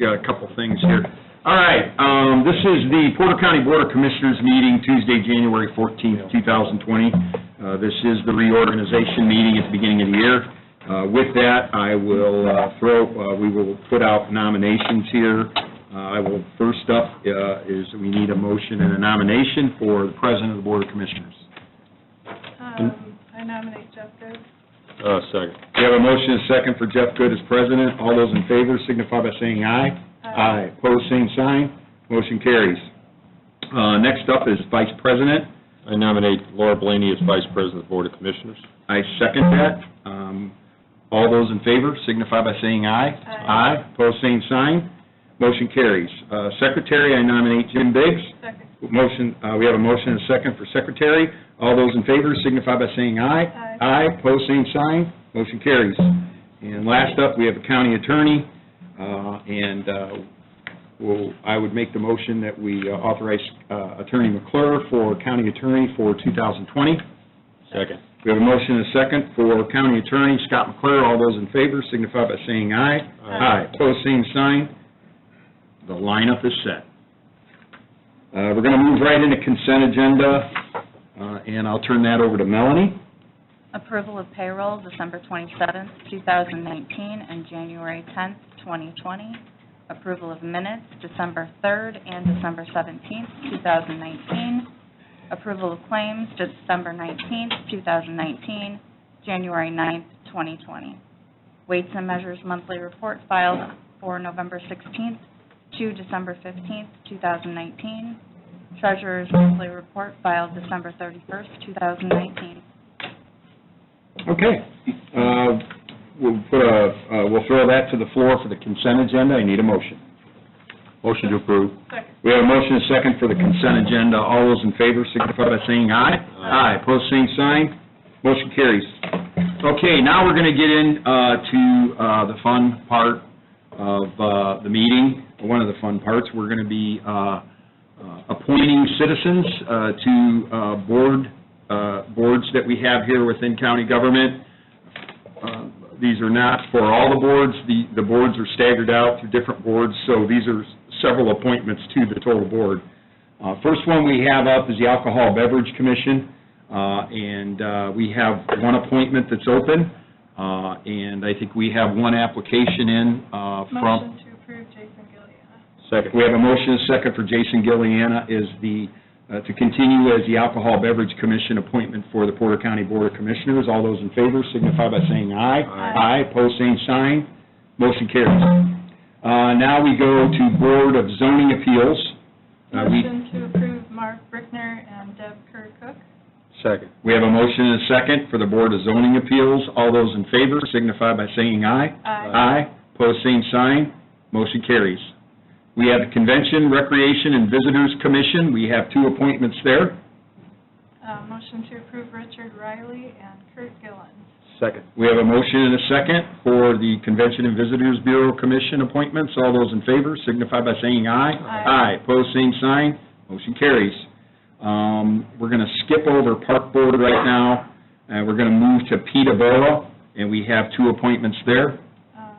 got a couple things here. All right, um, this is the Porter County Board of Commissioners meeting Tuesday, January 14th, 2020. Uh, This is the reorganization meeting at the beginning of the year. Uh, With that, I will uh, throw, uh, we will put out nominations here. Uh, I will, first up uh, is we need a motion and a nomination for the President of the Board of Commissioners. Um, I nominate Jeff Good. Uh, second. We have a motion and a second for Jeff Good as president. All those in favor signify by saying aye. Aye. Pose same sign. Motion carries. Uh, Next up is vice president. I nominate Laura Blaney as Vice President of the Board of Commissioners. I second that. Um, All those in favor signify by saying aye. Aye. Aye. Pose same sign. Motion carries. Uh, Secretary, I nominate Jim Biggs. Second. Motion, uh, we have a motion and a second for secretary. All those in favor signify by saying aye. Aye. Aye, pose same sign, motion carries. And last up, we have a county attorney, uh, and uh, we'll- I would make the motion that we uh, authorize uh, Attorney McClure for county attorney for 2020. Second. We have a motion and a second for county attorney Scott McClure. All those in favor signify by saying aye. Aye. Pose same sign. The lineup is set. Uh, We're going to move right into consent agenda, uh, and I'll turn that over to Melanie. Approval of payroll, December 27th, 2019, and January 10th, 2020. Approval of minutes, December 3rd and December 17th, 2019. Approval of claims, December 19th, 2019, January 9th, 2020. Weights and Measures Monthly Report filed for November 16th to December 15th, 2019. Treasurer's Monthly Report filed December 31st, 2019. Okay. Uh, We'll put a- uh, we'll throw that to the floor for the consent agenda. I need a motion. Motion to approve. Second. We have a motion and a second for the consent agenda. All those in favor signify by saying aye. Aye. Pose same sign. Motion carries. Okay, now we're going to get in uh, to uh, the fun part of uh, the meeting, one of the fun parts. We're going to be uh, uh, appointing citizens uh, to uh, board, uh, boards that we have here within county government. Uh, These are not for all the boards, the, the boards are staggered out through different boards, so these are several appointments to the total board. Uh, First one we have up is the Alcohol Beverage Commission, uh, and uh, we have one appointment that's open, uh, and I think we have one application in uh, from... Motion to approve Jason Gilliana. Second. We have a motion and a second for Jason Gilliana is the, uh, to continue as the Alcohol Beverage Commission appointment for the Porter County Board of Commissioners. All those in favor signify by saying aye. Aye. Aye, pose same sign. Motion carries. Uh, Now we go to Board of Zoning Appeals. Uh, we- Motion to approve Mark Brickner and Deb Kerr Cook. Second. We have a motion and a second for the Board of Zoning Appeals. All those in favor signify by saying aye. Aye. Aye, pose same sign, motion carries. We have the Convention, Recreation, and Visitors Commission, we have two appointments there. Uh, Motion to approve Richard Riley and Kurt Gillen. Second. We have a motion and a second for the Convention and Visitors Bureau Commission appointments. All those in favor signify by saying aye. Aye. Aye, pose same sign, motion carries. Um, We're going to skip over Park Board right now, and we're going to move to Peterborough, and we have two appointments there. Um,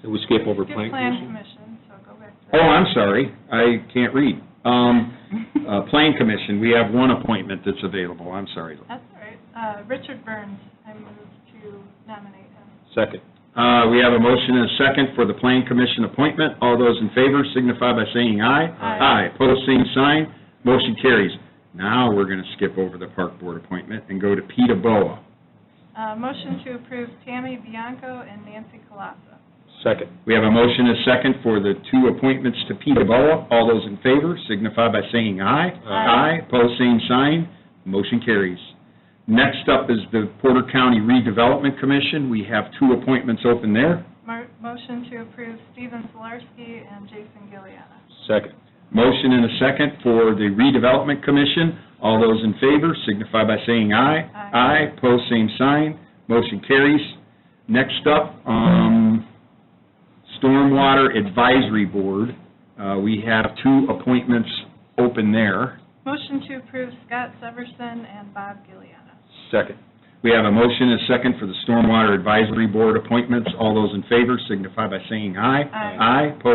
Did we skip over Skip Plan Plan Commission? Commission, so go back to Oh, that. I'm sorry, I can't read. Um, uh, Plan Commission, we have one appointment that's available, I'm sorry. That's all right. Uh, Richard Burns, I move to nominate him. Second. Uh, We have a motion and a second for the Plan Commission appointment. All those in favor signify by saying aye. Aye. Aye, pose same sign, motion carries. Now, we're going to skip over the Park Board appointment and go to Peta Boa. Uh, Motion to approve Tammy Bianco and Nancy Colasa. Second. We have a motion and a second for the two appointments to Peta Boa. All those in favor signify by saying aye. Aye. Aye, pose same sign, motion carries. Next up is the Porter County Redevelopment Commission. We have two appointments open there. Mar- Motion to approve Steven Solarski and Jason Gilliana. Second. Motion and a second for the redevelopment commission. All those in favor signify by saying aye. Aye. Aye, pose same sign, motion carries. Next up, um, Stormwater Advisory Board. Uh, We have two appointments open there. Motion to approve Scott Severson and Bob Gilliana. Second. We have a motion and a second for the Stormwater Advisory Board appointments. All those in favor signify by saying aye. Aye. Aye, pose